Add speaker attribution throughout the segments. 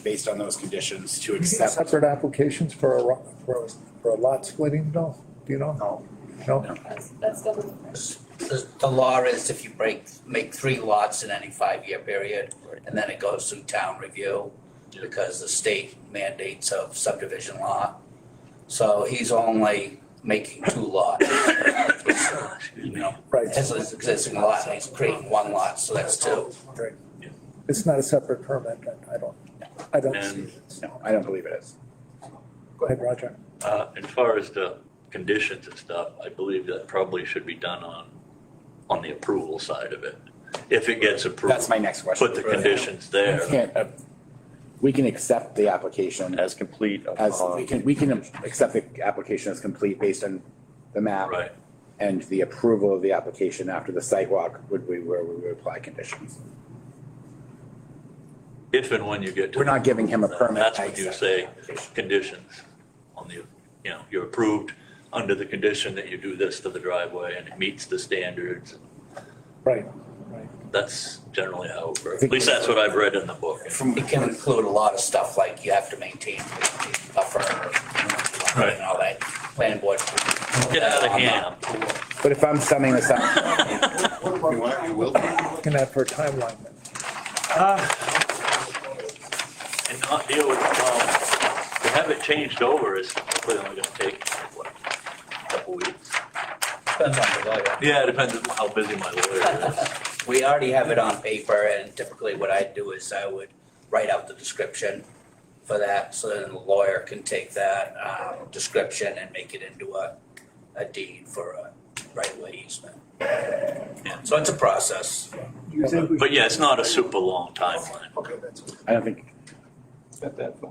Speaker 1: based on those conditions to
Speaker 2: You need
Speaker 1: accept.
Speaker 2: Separate applications for a, ro- for, a- for a lot splitting, no, do you know?
Speaker 1: No,
Speaker 2: No,
Speaker 3: That's, that's double the pressure.
Speaker 4: The, the law is if you break, make three lots in any five-year period, and then it goes through town review because the state mandates of subdivision law. So he's only making two lots. You know,
Speaker 2: right,
Speaker 4: his existing lot, and he's creating one lot, so that's two.
Speaker 2: it's not a separate permit, I I don't, I don't see it.
Speaker 1: no, I don't believe it is.
Speaker 2: Go ahead, Roger.
Speaker 5: Uh, as far as the conditions and stuff, I believe that probably should be done on, on the approval side of it. If it gets
Speaker 1: That's
Speaker 5: approved,
Speaker 1: my next question.
Speaker 5: put the conditions
Speaker 1: We
Speaker 5: there.
Speaker 1: can't, uh, We can accept the application
Speaker 6: as complete uh,
Speaker 1: as,
Speaker 6: upon.
Speaker 1: we can, we can accept the application as complete based on the map.
Speaker 5: Right,
Speaker 1: And the approval of the application after the site walk would be where we would apply conditions.
Speaker 5: if and when you get to.
Speaker 1: We're not giving him a permit.
Speaker 5: That's
Speaker 1: I
Speaker 5: what you
Speaker 1: accept
Speaker 5: say,
Speaker 1: the application.
Speaker 5: conditions on the, you know, you're approved under the condition that you do this to the driveway and it meets the standards.
Speaker 2: Right,
Speaker 5: That's generally how, it works.
Speaker 1: think-
Speaker 5: at least that's what I've read in the book.
Speaker 1: From,
Speaker 4: It can include a lot of stuff like you have to maintain a buffer, you know, and all that, planning board.
Speaker 5: Get out of hand.
Speaker 1: but if I'm summing this up,
Speaker 7: You want, you will.
Speaker 2: looking at for a timeline then.
Speaker 5: and not deal with the problem. To have it changed over is probably only gonna take, what, a couple weeks?
Speaker 4: Depends on the lawyer.
Speaker 5: Yeah, it depends on how busy my lawyer is.
Speaker 4: We already have it on paper and typically what I do is I would write out the description for that, so then the lawyer can take that, um, description and make it into a, a deed for a right-of-way easement. Yeah, so it's a process.
Speaker 2: You think we
Speaker 5: But yeah, it's not a super long timeline.
Speaker 2: Okay, that's.
Speaker 1: I don't think.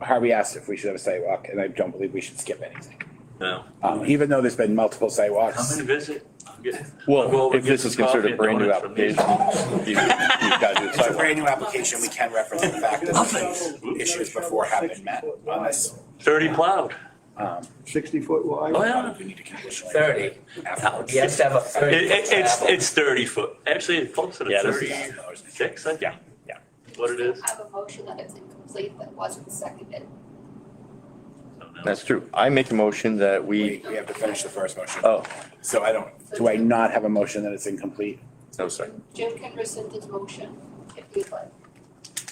Speaker 1: Harvey asked if we should have a sidewalk, and I don't believe we should skip anything.
Speaker 5: No.
Speaker 1: Um, even though there's been multiple
Speaker 5: Come
Speaker 1: sidewalks,
Speaker 5: and visit. I'll get- I'll go
Speaker 6: Well,
Speaker 5: over
Speaker 6: if
Speaker 5: and get
Speaker 6: this is
Speaker 5: some
Speaker 6: considered
Speaker 5: coffee
Speaker 6: a
Speaker 5: and
Speaker 6: brand new
Speaker 5: donuts from
Speaker 6: application,
Speaker 5: these.
Speaker 6: you- you've got to do a
Speaker 1: it's a
Speaker 6: sidewalk.
Speaker 1: brand new application, we can reference the fact that issues before have been met on this.
Speaker 5: Thirty plowed.
Speaker 1: Um,
Speaker 8: sixty foot wide.
Speaker 5: Oh, yeah.
Speaker 1: um, We need to condition. like
Speaker 4: Thirty,
Speaker 1: afterwards.
Speaker 4: he has to have a
Speaker 5: It,
Speaker 4: thirty.
Speaker 5: it, it's, it's thirty foot. Actually, it's closer to
Speaker 6: Yeah, this is-
Speaker 5: thirty-six, I think.
Speaker 6: Yeah, yeah.
Speaker 5: What it is.
Speaker 3: I have a motion that it's incomplete that wasn't seconded.
Speaker 5: I don't know.
Speaker 6: That's true. I make a motion that we,
Speaker 1: We, we have to finish the first motion.
Speaker 6: oh,
Speaker 1: So I don't,
Speaker 3: So
Speaker 1: do I
Speaker 3: Jim-
Speaker 1: not have a motion that it's incomplete?
Speaker 6: no, sorry.
Speaker 3: Jim can rescind his motion if he'd like.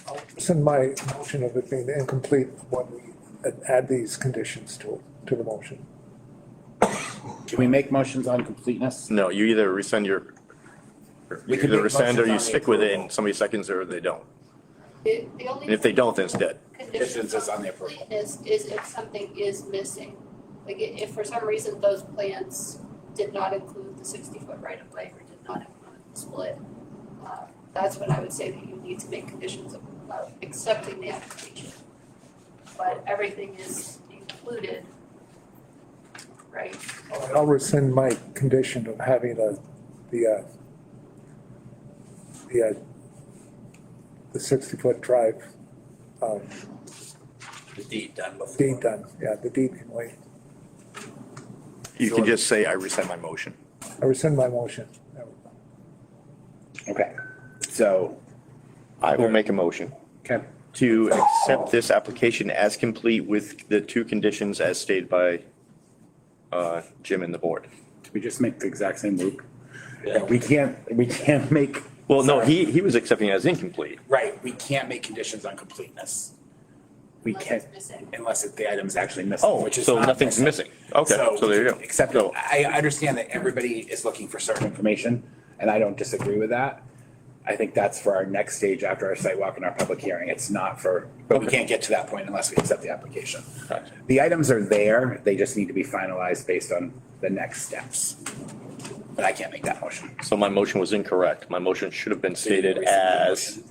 Speaker 2: I'll rescind my motion of it being incomplete when we add these conditions to, to the motion.
Speaker 1: Can we make motions on completeness?
Speaker 6: No, you either rescind your,
Speaker 1: We
Speaker 6: you
Speaker 1: can
Speaker 6: either
Speaker 1: make
Speaker 6: rescind or
Speaker 1: motions on
Speaker 6: you
Speaker 1: the
Speaker 6: stick with it
Speaker 1: approval.
Speaker 6: and somebody seconds or they don't.
Speaker 3: The, the only.
Speaker 6: And if they don't, then it's dead.
Speaker 3: Condition
Speaker 1: Conditions is on the approval.
Speaker 3: completeness is if something is missing. Like i- if for some reason those plans did not include the sixty foot right of way or did not include the split, uh, that's when I would say that you need to make conditions of, of accepting the application. But everything is included, right?
Speaker 2: I'll rescind my condition of having the, the, uh, the, uh, the sixty-foot drive, um,
Speaker 4: The deed done before.
Speaker 2: deed done, yeah, the deed can wait.
Speaker 6: You can just say, I rescind my motion.
Speaker 2: I rescind my motion. There we go.
Speaker 1: Okay, so,
Speaker 6: I will make a motion
Speaker 1: okay,
Speaker 6: to accept this application as complete with the two conditions as stated by uh, Jim and the board.
Speaker 1: did we just make the exact same loop?
Speaker 5: Yeah.
Speaker 1: We can't, we can't make.
Speaker 6: Well, no, he, he was accepting it as incomplete.
Speaker 1: Right, we can't make conditions on completeness. We
Speaker 3: Unless
Speaker 1: can't,
Speaker 3: it's missing.
Speaker 1: unless it- the item's actually missing,
Speaker 6: Oh,
Speaker 1: which is
Speaker 6: so
Speaker 1: not
Speaker 6: nothing's missing. Okay, so there you go.
Speaker 1: Except,
Speaker 6: So-
Speaker 1: I I understand that everybody is looking for certain information, and I don't disagree with that. I think that's for our next stage after our site walk and our public hearing. It's not for, but we
Speaker 6: Okay.
Speaker 1: can't get to that point unless we accept the application. The items are there, they just need to be finalized based on the next steps. But I can't make that motion.
Speaker 6: So my motion was incorrect. My motion should have been stated as,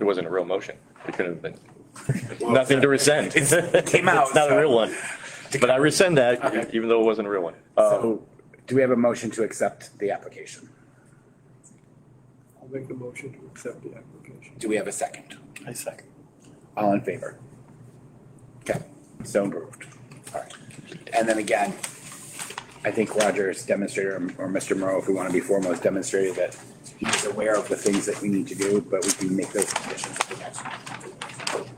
Speaker 6: it wasn't a real motion. It couldn't have been, nothing to rescind. It
Speaker 1: came out,
Speaker 6: It's not a
Speaker 1: so-
Speaker 6: real one. But I rescind that, even though it wasn't a real one. Uh,
Speaker 1: So, do we have a motion to accept the application?
Speaker 8: I'll make a motion to accept the application.
Speaker 1: Do we have a second?
Speaker 8: I second.
Speaker 1: All in favor? Okay, so approved. All right. And then again, I think Roger's demonstrated, or or Mr. Moreau, if we want to be formal, has demonstrated that he's aware of the things that we need to do, but we can make those conditions at the next. meeting.